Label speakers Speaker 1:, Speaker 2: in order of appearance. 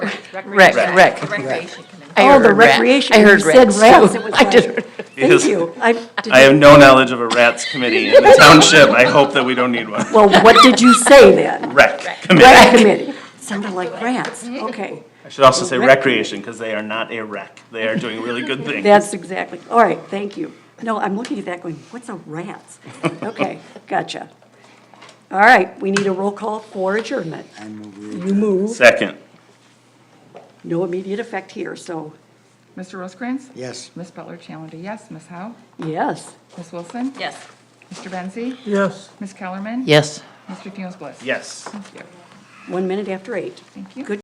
Speaker 1: Rec, rec.
Speaker 2: Recreation Committee.
Speaker 1: I
Speaker 3: Oh, the
Speaker 1: heard rat.
Speaker 3: recreation,
Speaker 1: I
Speaker 3: you
Speaker 1: heard
Speaker 3: said
Speaker 1: rats, too.
Speaker 3: rats, it was
Speaker 1: I
Speaker 3: like-
Speaker 1: did,
Speaker 3: Thank
Speaker 4: Yes.
Speaker 3: you. I did
Speaker 4: I
Speaker 3: you-
Speaker 4: have no knowledge of a rats committee in the township. I hope that we don't need one.
Speaker 3: Well, what did you say then?
Speaker 4: Rec committee.
Speaker 3: Rec committee. Sounded like rats. Okay,
Speaker 4: I should also say
Speaker 3: Rec-
Speaker 4: recreation, because they are not a rec. They are doing really good things.
Speaker 3: that's exactly, all right, thank you. No, I'm looking at that going, what's a rats? Okay, gotcha. All right, we need a roll call for adjournment. You move,
Speaker 4: Second,
Speaker 3: no immediate effect here, so
Speaker 5: Mr. Rosecrans?
Speaker 6: Yes.
Speaker 5: Ms. Butler Challenger, yes. Ms. Howe?
Speaker 3: yes.
Speaker 5: Ms. Wilson?
Speaker 2: Yes.
Speaker 5: Mr. Benzi?
Speaker 6: Yes.
Speaker 5: Ms. Kellerman?
Speaker 1: yes.
Speaker 5: Mr. Fields Bliss?
Speaker 4: yes.
Speaker 5: Thank you.
Speaker 3: One minute after eight.
Speaker 5: Thank you.
Speaker 3: Good